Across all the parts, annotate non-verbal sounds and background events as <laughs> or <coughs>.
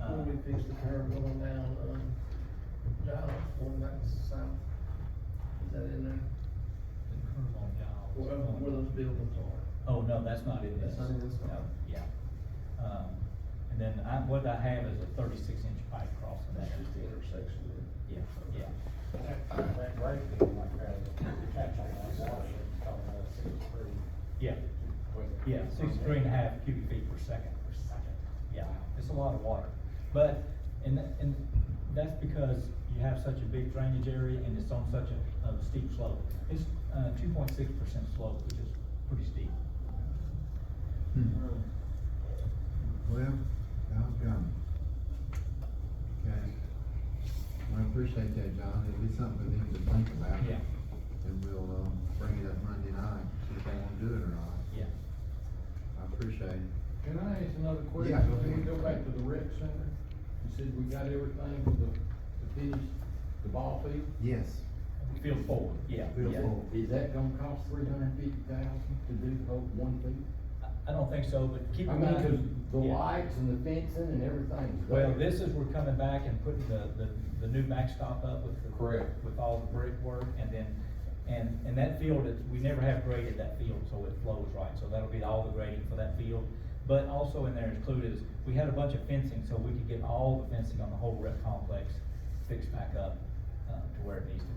uh, fix the curve going down, um, Giles, going back south. Is that in there? The curve on Giles. Where, where those buildings are? Oh, no, that's not in this. um, uh, That's not in this one. No, Yeah. Um, and then I, what I have is a thirty-six inch pipe crossing That's there. just the intersection there. Yeah, yeah. That great being like that, catch on that water, it's coming out of sixty-three. Yeah, yeah, sixty-three and a half cubic feet per second. Yeah, it's a lot of water. But, and, tha- and that's because you have such a big drainage area and it's on such a, a steep slope. It's, uh, two point six percent slope, which is pretty steep. Hmm. Well, Don's gone. Okay. Well, I appreciate that, John. It'll be something for them to think about. Yeah. And we'll, um, bring it up Monday night, see if they wanna do it or not. Yeah. I appreciate it. Can I ask another question? Yeah, go Can we ahead. go back to the rec center? You said we got everything for the, to finish the ball field? Yes. Field forward, yeah. Field yeah. forward. Is that gonna cost three hundred and fifty thousand to do the whole one thing? I- I don't think so, but keep I in mean, mind. 'cause the Yeah. lights and the fencing and everything's there. Well, this is, we're coming back and putting the, the, the new backstop up with the. Correct. With all the brickwork and then, and, and that field, it's, we never have graded that field, so it flows right, so that'll be all the grading for that field. But also in there included is, we had a bunch of fencing, so we could get all the fencing on the whole rec complex fixed back up, uh, to where it needs to be.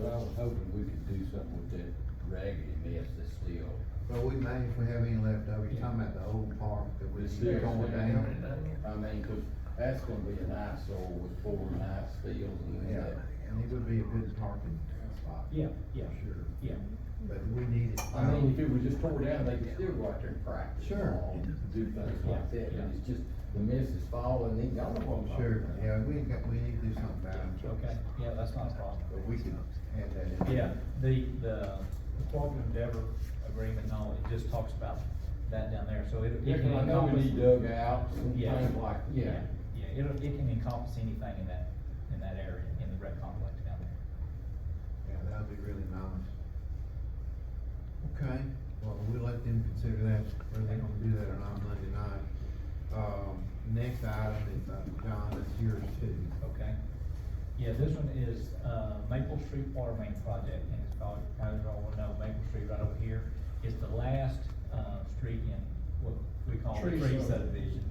Well, I was hoping we could do something with that raggedy mess that's still, Well, we may, if we have any left over, you're talking about the old park that we It's keep there. going down. I mean, 'cause that's gonna be an eyesore with four and ice fields and Yeah, that. and it would be a good parking spot. Yeah, yeah, Sure, yeah. but we need it. I mean, if it was just tore down, they could still go out there and practice. Sure. All Do things like that, Yeah. but it's just, the mess is falling, they don't want to. Sure, yeah, we got, we need to do something about it. Okay, yeah, that's not a problem. But we can add that in. Yeah, the, the cooperative endeavor agreement and all, it just talks about that down there, so it. it Yeah, 'cause can I know we encompass- need dugouts and Yeah. things like, yeah. Yeah, it'll, it can encompass anything in that, in that area, in the rec complex down there. Yeah, that'd be really nice. Okay, well, we'll let them consider that, whether they're gonna do that or not Monday night. Um, next item is, uh, John, that's yours too. Okay? Yeah, this one is, uh, Maple Street Water Main Project, and it's called, probably you all will know, Maple Street right over here is the last, uh, street in what we call the Tree tree sub- subdivision,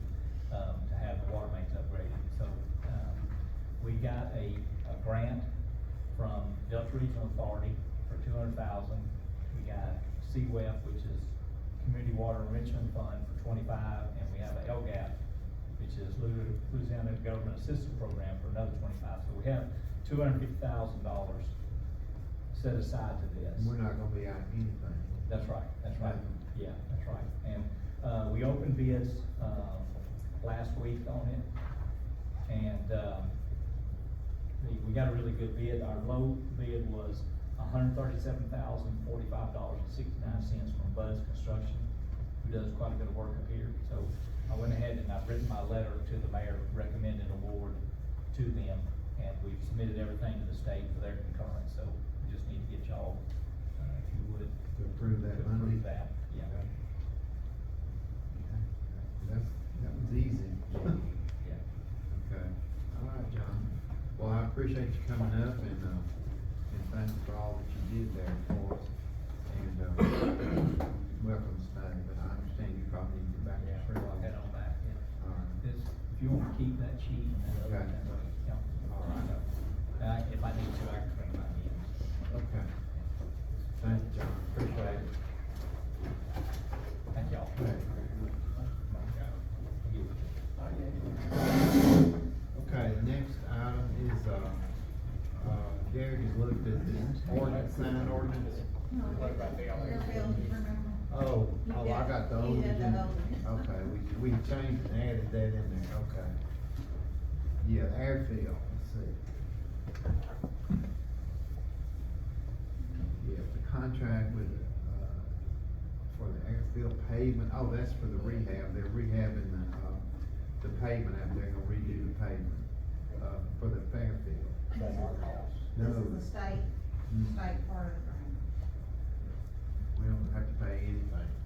um, to have the water mains upgraded. So, um, we got a, a grant from Delta Regional Authority for two hundred thousand. We got CWEF, which is Community Water Enrichment Fund for twenty-five, and we have a LGAP, which is Lu- Louisiana Government Assistance Program for another twenty-five. So we have two hundred fifty thousand dollars set aside to this. We're not gonna be out anything. That's right, that's right, Mhm. yeah, that's right, and, uh, we opened bids, um, last week on it, and, um, we, we got a really good bid, our low bid was hundred thirty-seven thousand forty-five dollars and sixty-nine cents from Bud's Construction, who does quite a bit of work up here, so I went ahead and I've written my letter to the mayor recommending award to them, and we've submitted everything to the state for their concurrence, so we just need to get y'all, uh, if you would, To approve that to Monday? approve that, yeah. Okay. Okay, That's, that was easy. <laughs> Yeah. Okay, all right, John. Well, I appreciate you coming up and, uh, and thank you for all that you did there for us. And, uh, <coughs> welcome Stan, but I understand you probably need to get back to Yeah, the I'll head on back, yeah. All right. This, if you wanna keep that sheet and that other, Okay. yeah. All Uh, if I need to, I can bring my hands. Okay. Thank you, John. Appreciate it. Thank y'all. Okay. Okay, next item is, uh, uh, Derek has looked at the ordinance, sign ordinance. No, Bill, remember? Oh, oh, I got the old He had the agenda. old agenda. Okay, we, we changed and added that in there, okay. Yeah, airfield, let's see. Yeah, the contract with, uh, for the airfield pavement, oh, that's for the rehab, they're rehabbing the, uh, the pavement out there, gonna redo the pavement, uh, for the Fairfield. This is the- No. This is the state, Mm. state part of the grant. We don't have to pay anything.